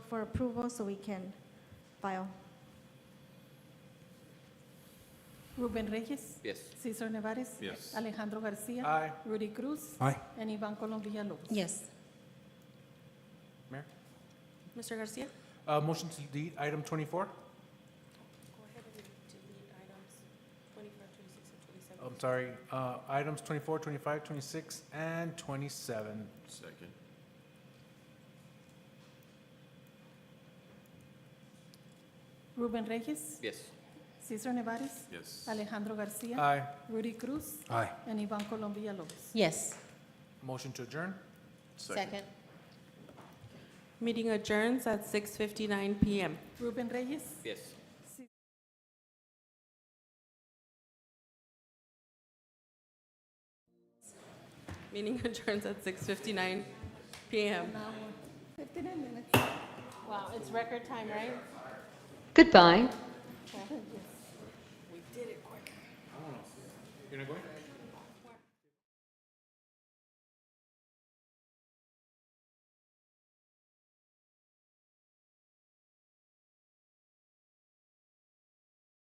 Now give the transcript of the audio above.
for approval so we can file. Ruben Reyes. Yes. Cesar Nevares. Yes. Ah. Alejandro Garcia. Aye. Rudy Cruz. Aye. And Ivan Colom Villalobos. Yes. Mayor? Mr. Garcia? Uh, motion to delete item twenty-four? Go ahead and delete items 25, 26, and I'm sorry, uh, items 24, 25, 26, and twenty-seven. Second. Ruben Reyes. Yes. Cesar Nevares. Yes. Alejandro Garcia. Ah. Aye. Rudy Cruz. Aye. And Ivan Colom Villalobos. Yes. Motion to adjourn? Meeting adjourns at 6:59 PM. Ruben Reyes. Yes. Meeting adjourns at 6:59 PM. Wow, it's record time, right? Goodbye. We did it quick. You're not going?